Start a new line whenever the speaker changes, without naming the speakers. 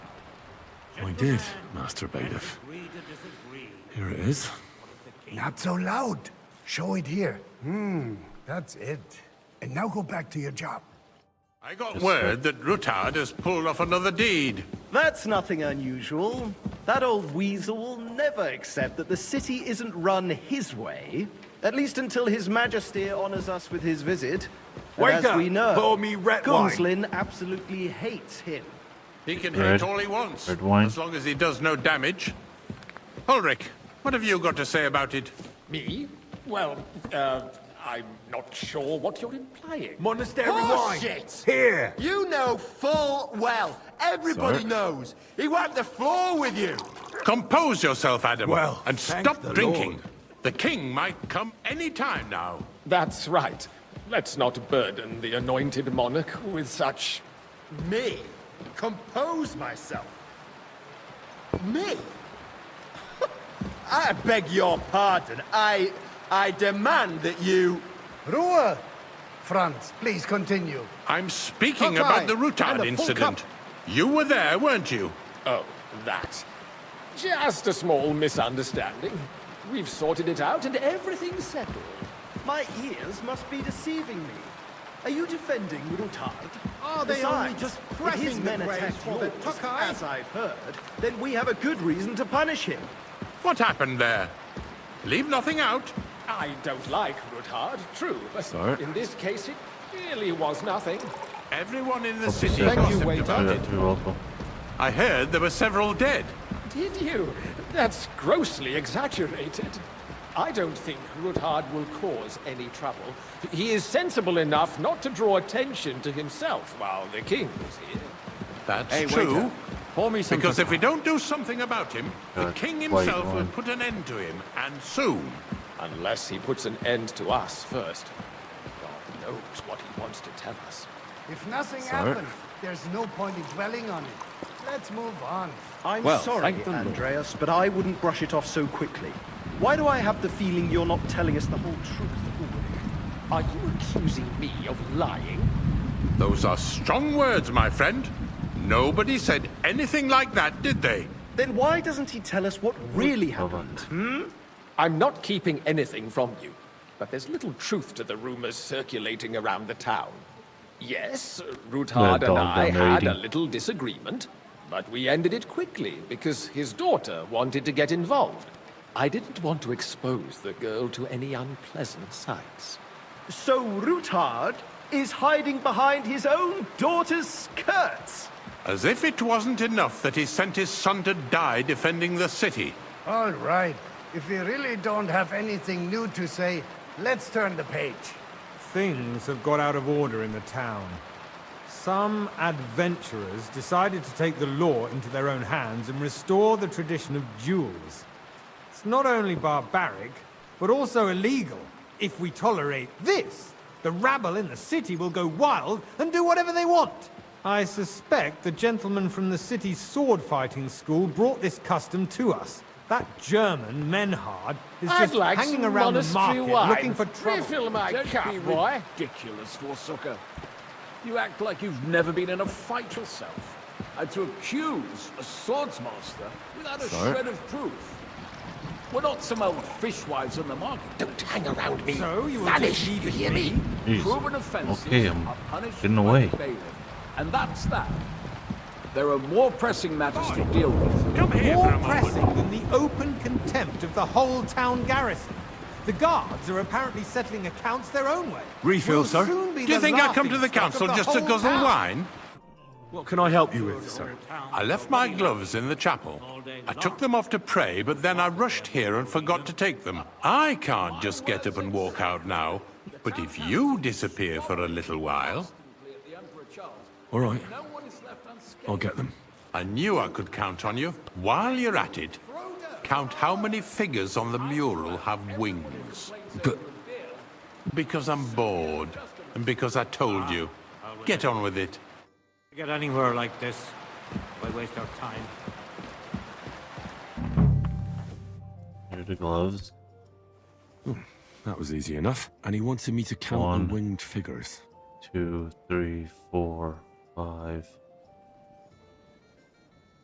I did, Master Bailiff. Here it is.
Not so loud. Show it here. Hmm, that's it. And now go back to your job.
I got word that Rutard has pulled off another deed.
That's nothing unusual. That old weasel will never accept that the city isn't run his way, at least until His Majesty honors us with his visit. And
Wake
as
up,
we know,
pour me red wine.
Gunslin absolutely hates him.
He can
Red-
hate all he wants,
red wine.
as long as he does no damage. Ulrich, what have you got to say about it?
Me? Well, uh, I'm not sure what you're implying. Oh,
Monastery wine.
Bullshit!
Here.
Oh, You know full well. Everybody
Sorry.
knows. He wiped the floor with you.
Compose yourself, Adam,
Well,
and
thank
stop
the
drinking.
Lord.
The king might come any time now.
That's right. Let's not burden the anointed monarch with such.
Me? Compose myself? Me? I beg your pardon. I. I demand that you.
Ruhe! Franz, please continue.
I'm speaking
Cockeye,
about the
and a
Rutard
full
incident.
cup.
You were there, weren't you?
Oh, that. Just a small misunderstanding. We've sorted it out and everything's settled.
My ears must be deceiving me. Are you defending Rutard?
Are they
Besides,
only just
if his
pressing the
men
graves
attack
for their
yours,
Tokai?
as I've heard, then we have a good reason to punish him.
What happened there? Leave nothing out.
I don't like Ruthard, true, but
Sorry.
in this case it really was nothing.
Everyone in the
Copy,
city
sir. Thank you,
gossiped about
Yeah,
it.
too awful.
I heard there were several dead.
Did you? That's grossly exaggerated. I don't think Ruthard will cause any trouble. He is sensible enough not to draw attention to himself while the king is here.
That's
Hey,
true.
waiter.
Pour me some
Because if we don't do something about him, the
Uh,
king
wait,
himself will
one.
put an end to him, and soon.
Unless he puts an end to us first. God knows what he wants to tell us.
If nothing
Sir?
happens, there's no point in dwelling on it. Let's move on.
I'm
Well,
sorry,
thank the Lord.
Andreas, but I wouldn't brush it off so quickly. Why do I have the feeling you're not telling us the whole truth, Ulrich?
Are you accusing me of lying?
Those are strong words, my friend. Nobody said anything like that, did they?
Then why doesn't he tell us what really happened?
Covered.
I'm not keeping anything from you, but there's little truth to the rumors circulating around the town. Yes, Ruthard
don't-
and I
don't
had a
reading.
little disagreement, but we ended it quickly because his daughter wanted to get involved. I didn't want to expose the girl to any unpleasant sights.
So Ruthard is hiding behind his own daughter's skirts.
As if it wasn't enough that he sent his son to die defending the city.
All right. If we really don't have anything new to say, let's turn the page.
Things have got out of order in the town. Some adventurers decided to take the law into their own hands and restore the tradition of duels. It's not only barbaric, but also illegal. If we tolerate this, the rabble in the city will go wild and do whatever they want. I suspect the gentleman from the city's sword fighting school brought this custom to us. That German Menhard is
I'd
just
like
hanging
some
around the
monastery
market
wine.
looking for trouble.
Refill my
Don't
cup,
be
boy.
ridiculous, Forsucker. You act like you've never been in a fight yourself. And to accuse a swordsmaster without a
Sorry.
shred of proof. We're not some old fishwives on the market.
Don't hang around me.
So you will
Vanish,
just leave
you
it
hear
to
me?
me?
Jeez.
Proven offences
Okay, I'm
are punished
getting
by
away.
the bailiff. And that's that. There are more pressing matters to deal with.
Come here
more
for a moment.
pressing than the open contempt of the whole town garrison. The guards are apparently settling accounts their own way.
Refill,
We'll
sir?
soon be
Do you
the
think I come to the
laughingstock of
council just to
whole
guzzle
town.
wine?
What can I help you with, sir?
I left my gloves in the chapel. I took them off to pray, but then I rushed here and forgot to take them. I can't just get up and walk out now. But if you disappear for a little while,
The Emperor Charles.
All right,
No one is left unscathed.
I'll get them.
I knew I could count on you. While you're at it, count how many figures on the mural have wings.
But
Because I'm bored, and because I told you. Get on with it.
To get anywhere like this, why waste our time?
Here are the gloves.
that was easy enough. And he wanted me to count
One.
the winged figures.
Two, three, four, five,